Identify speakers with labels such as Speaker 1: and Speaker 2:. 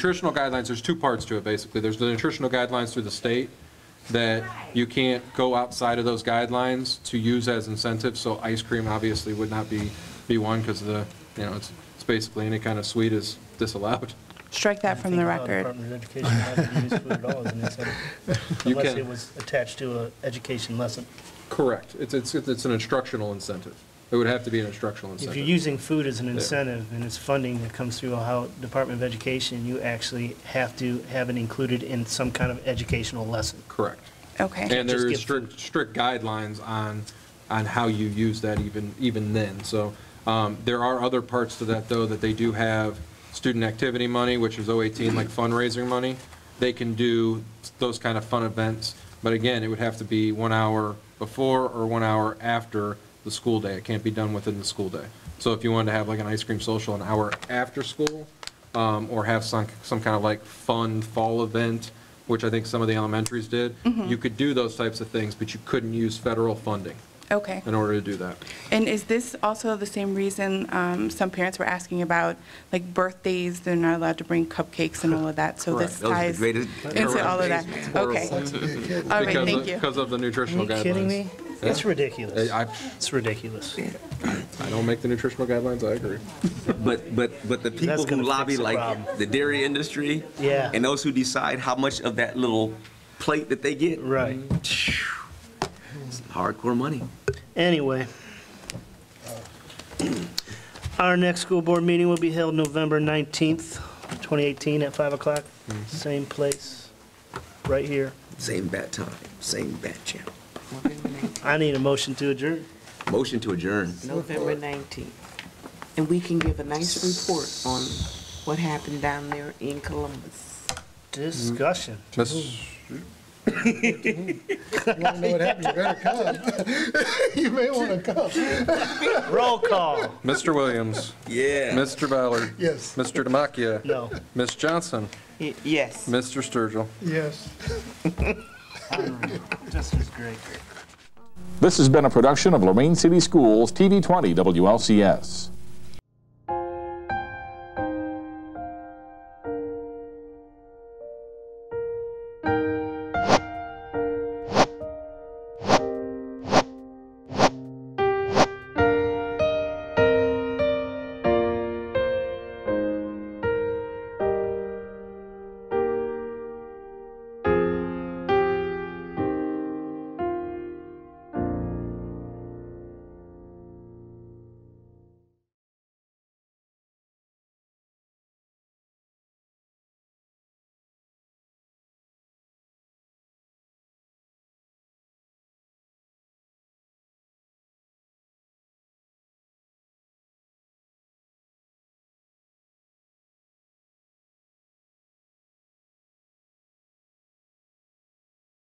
Speaker 1: nutritional guidelines, there's two parts to it, basically. There's the nutritional guidelines through the state that you can't go outside of those guidelines to use as incentives, so ice cream obviously would not be, be one, because the, you know, it's, it's basically any kind of sweet is disallowed.
Speaker 2: Strike that from the record.
Speaker 3: Department of Education had to use food at all as an incentive,
Speaker 1: You
Speaker 3: unless
Speaker 1: can-
Speaker 3: it was attached to an education lesson.
Speaker 1: Correct. It's, it's, it's an instructional incentive. It would have to be an instructional
Speaker 3: If
Speaker 1: incentive.
Speaker 3: you're using food as an incentive and it's funding that comes through Ohio Department of Education, you actually have to have it included in some kind of educational lesson.
Speaker 1: Correct.
Speaker 2: Okay.
Speaker 1: And there is
Speaker 3: Just give
Speaker 1: strict, strict guidelines on, on how you use that even, even then. So um, there are other parts to that, though, that they do have student activity money, which is 018, like fundraising money. They can do those kind of fun events, but again, it would have to be one hour before or one hour after the school day. It can't be done within the school day. So if you wanted to have like an ice cream social an hour after school, um, or have some, some kind of like fun fall event, which I think some of the elementaries did,
Speaker 2: Mm-hmm.
Speaker 1: you could do those types of things, but you couldn't use federal funding
Speaker 2: Okay.
Speaker 1: in order to do that.
Speaker 2: And is this also the same reason um, some parents were asking about, like birthdays, they're not allowed to bring cupcakes and all of that? So this
Speaker 1: Correct.
Speaker 4: Those are the
Speaker 2: ties
Speaker 4: greatest-
Speaker 2: into all of that.
Speaker 1: Correct.
Speaker 2: Okay. All right,
Speaker 1: Because of-
Speaker 2: thank you.
Speaker 1: Because of the
Speaker 3: Are
Speaker 1: nutritional
Speaker 3: you
Speaker 1: guidelines.
Speaker 3: kidding me? It's ridiculous.
Speaker 1: I,
Speaker 3: It's ridiculous.
Speaker 1: I don't make the nutritional guidelines, I agree.
Speaker 4: But, but, but the people who
Speaker 3: gonna
Speaker 4: lobby,
Speaker 3: fix the
Speaker 4: like
Speaker 3: problem.
Speaker 4: the dairy industry.
Speaker 3: Yeah.
Speaker 4: And those who decide how much of that little plate that they get.
Speaker 3: Right.
Speaker 4: Hardcore money.
Speaker 3: Anyway. Our next school board meeting will be held November 19th, 2018, at 5 o'clock.
Speaker 1: Mm-hmm.
Speaker 3: Same place, right here.
Speaker 4: Same bat time, same bat channel.
Speaker 3: I need a motion to adjourn.
Speaker 4: Motion to adjourn.
Speaker 5: November 19th. And we can give a nice report on what happened down there in Columbus.
Speaker 3: Discussion.
Speaker 1: Miss-
Speaker 6: know what happened, you better come. You may want to come.
Speaker 3: Roll call.
Speaker 1: Mr. Williams,
Speaker 4: Yeah.
Speaker 1: Mr. Ballard.
Speaker 6: Yes.
Speaker 1: Mr. Demakia.
Speaker 3: No.
Speaker 1: Ms. Johnson,
Speaker 5: Y- Yes.
Speaker 1: Mr. Sturgill.
Speaker 6: Yes.
Speaker 3: This is great.
Speaker 7: This has been a production of Lorraine City Schools TV 20 WLCS.